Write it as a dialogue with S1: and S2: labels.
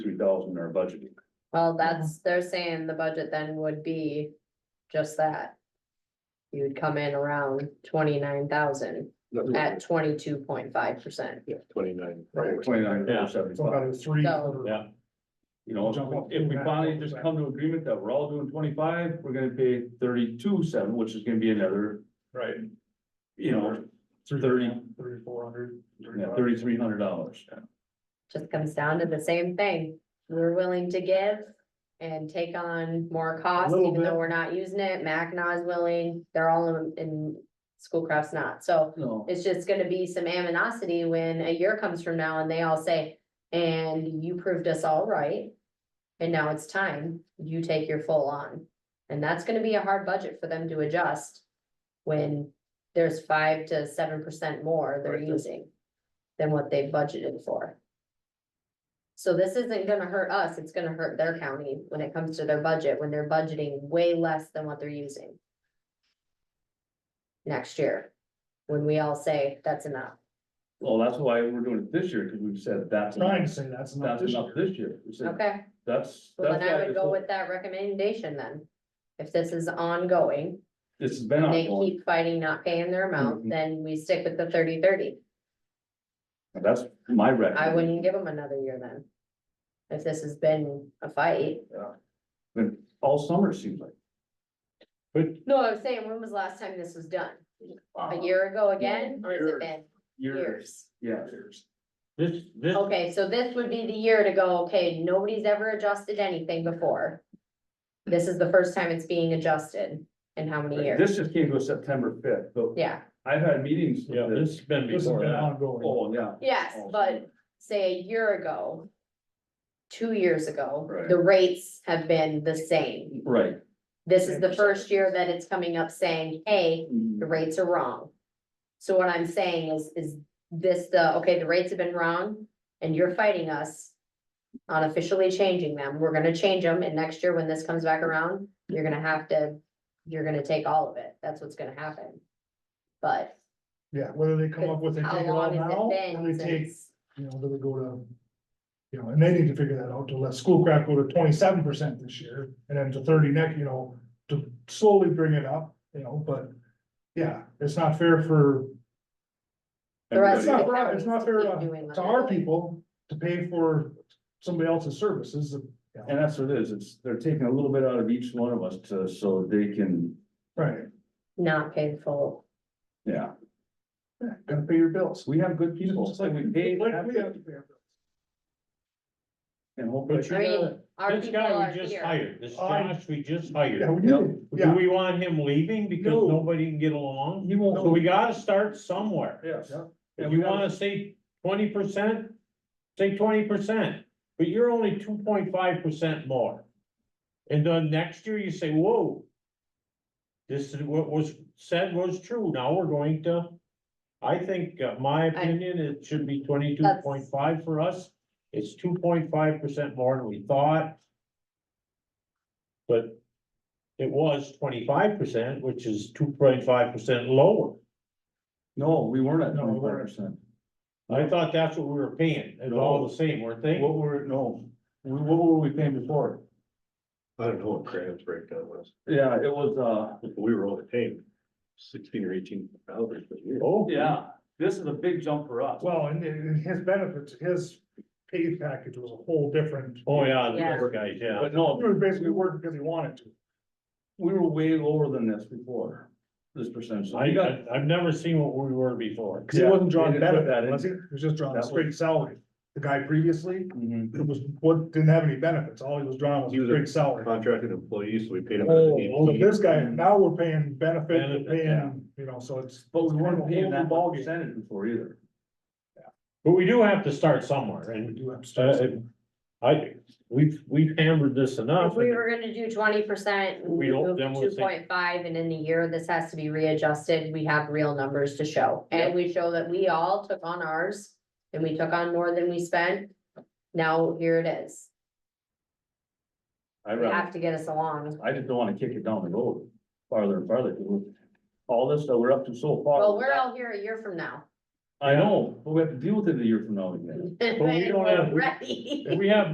S1: dollars in our budget.
S2: Well, that's, they're saying the budget then would be just that. You would come in around twenty-nine thousand at twenty-two point five percent.
S3: Yeah, twenty-nine.
S4: Right.
S1: Twenty-nine,
S5: Yeah.
S4: So about
S1: seventy-five,
S4: a three.
S2: So-
S5: Yeah.
S1: you know, if we finally just come to agreement that we're all doing twenty-five, we're gonna pay thirty-two seven, which is gonna be another,
S4: Right.
S1: you know, Thirty.
S4: Thirty, four hundred.
S1: thirty-three hundred dollars.
S2: Just comes down to the same thing. We're willing to give and take on more costs,
S4: little
S2: even
S4: bit.
S2: though we're not using it. Mackinac is willing, they're all in, in Schoolcraft's not, so
S1: No,
S2: it's just gonna be some aminosity when a year comes from now and they all say, and you proved us all right. And now it's time, you take your full on. And that's gonna be a hard budget for them to adjust when there's five to seven percent more they're
S3: Right.
S2: using than what they budgeted for. So this isn't gonna hurt us, it's gonna hurt their county when it comes to their budget, when they're budgeting way less than what they're using. Next year, when we all say, that's enough,
S1: well, that's why we're doing it this year, because we've said that's,
S4: Trying to
S1: that's
S4: say that's not this
S1: enough
S4: year.
S1: this year. We said,
S2: okay?
S1: That's.
S2: Well,
S1: that's
S2: then I
S1: why
S2: would
S1: this
S2: go
S1: whole-
S2: with that recommendation then. If this is ongoing,
S1: This has been
S2: and they
S1: ongoing,
S2: keep fighting not paying their amount,
S1: Mhm.
S2: then we stick with the thirty thirty.
S1: that's my record.
S2: I wouldn't give them another year then. If this has been a fight.
S1: All summer, it seems like.
S2: No, I was saying, when was the last time this was done? A year ago again, or has it been years?
S1: Yeah.
S5: This, this,
S2: Okay, so this would be the year to go, okay, nobody's ever adjusted anything before. This is the first time it's being adjusted in how many years?
S1: This just came to us September fifth, but
S2: Yeah,
S1: I've had meetings
S5: yeah,
S1: with
S5: this
S1: this.
S5: has been
S4: This has
S5: before
S4: been
S5: that.
S4: ongoing.
S1: Oh, yeah.
S2: yes,
S1: all
S2: but
S1: summer.
S2: say a year ago. Two years ago,
S1: Right.
S2: the rates have been the same.
S1: Right.
S2: This is the
S1: Same.
S2: first year that it's coming up saying, hey, the rates are wrong. So what I'm saying is, is this the, okay, the rates have been wrong and you're fighting us. On officially changing them, we're gonna change them and next year when this comes back around, you're gonna have to, you're gonna take all of it. That's what's gonna happen. But
S4: Yeah, whether they come up with, they
S2: how
S4: take it all
S2: long
S4: now,
S2: has
S4: or
S2: it been
S4: they take,
S2: since?
S4: you know, do they go to. You know, and they need to figure that out to let Schoolcraft go to twenty-seven percent this year and then to thirty next, you know, to slowly bring it up, you know, but. Yeah, it's not fair for,
S2: The rest
S4: it's
S2: of
S4: not,
S2: the
S4: for- it's
S2: counties
S4: not fair
S2: keep
S4: to
S2: doing what
S4: to
S2: they're
S4: our
S2: doing.
S4: people to pay for somebody else's services.
S1: And that's what it is, it's, they're taking a little bit out of each one of us to, so they can,
S4: Right,
S2: Not painful.
S1: yeah,
S4: yeah, gotta pay your bills.
S1: we have good people,
S4: Just like
S1: we paid.
S4: Like we have to pay our bills.
S1: And hopefully,
S5: But
S2: I
S5: you
S2: mean,
S5: know,
S2: our
S5: this
S2: people are
S5: guy we just
S2: here.
S5: hired, this
S4: I-
S5: Josh we just hired.
S4: Yeah, we
S1: Yep.
S4: do,
S5: Do
S4: yeah,
S5: we want him leaving because
S4: No.
S5: nobody can get along?
S1: he won't.
S5: So we gotta start somewhere.
S1: Yes.
S5: If you wanna say twenty percent, say twenty percent, but you're only two point five percent more. And then next year you say, whoa. This is what was said was true, now we're going to. I think, uh, my opinion, it should be twenty-two point five for us, it's two point five percent more than we thought. But it was twenty-five percent, which is two point five percent lower.
S1: No, we weren't at
S4: No, we
S1: twenty-five
S4: weren't.
S1: percent.
S5: I thought that's what we were paying, it's all the same, weren't they?
S1: What were, no, we- what were we paying before?
S3: I don't know what Graham's breakdown was,
S1: Yeah, it was, uh,
S3: we were only paying sixteen or eighteen dollars a year.
S5: Oh,
S1: yeah, this is a big jump for us.
S4: well, and and his benefits, his pay package was a whole different.
S5: Oh, yeah,
S2: Yeah.
S5: those guys, yeah.
S1: But no,
S4: He was basically working because he wanted to.
S1: we were way lower than this before, this percentage. So
S5: I,
S1: we got-
S5: I- I've never seen what we were before.
S4: Cause he
S1: Yeah,
S4: wasn't
S1: they
S4: drawing
S1: didn't put
S4: benefit,
S1: that in.
S4: was he? He was just drawing
S1: That
S4: straight salary. The guy previously,
S1: Mhm.
S4: it was, what, didn't have any benefits. All he was drawing was
S3: He was a
S4: straight salary.
S3: Contracted employees, so we paid them.
S4: Oh, so this guy,
S1: Mhm.
S4: now we're paying benefit,
S5: Benefit,
S4: we're
S1: yeah.
S4: paying, you know, so it's.
S1: But we weren't paying that
S4: ball
S1: much
S4: game.
S1: percentage before either.
S5: But we do have to start somewhere
S4: We
S5: and,
S4: do have to start
S5: uh,
S4: somewhere.
S5: I, we've, we've hammered this
S2: If
S5: enough.
S2: we were gonna do twenty percent,
S5: We
S2: we
S5: don't,
S2: move
S5: then
S2: to
S5: we'll
S2: two
S5: say-
S2: point five, and in the year, this has to be readjusted, we have real numbers to show. And we show that we all took on ours, and we took on more than we spent, now here it is.
S1: I
S2: You
S1: rather,
S2: have to get us along.
S1: I just don't wanna kick it down the road farther and farther. 'cause we're- All this that we're up to so far.
S2: Well, we're all here a year from now.
S1: I know, but we have to deal with it a year from now again.
S5: don't
S2: When
S5: have-
S2: we're Ready.
S5: If we have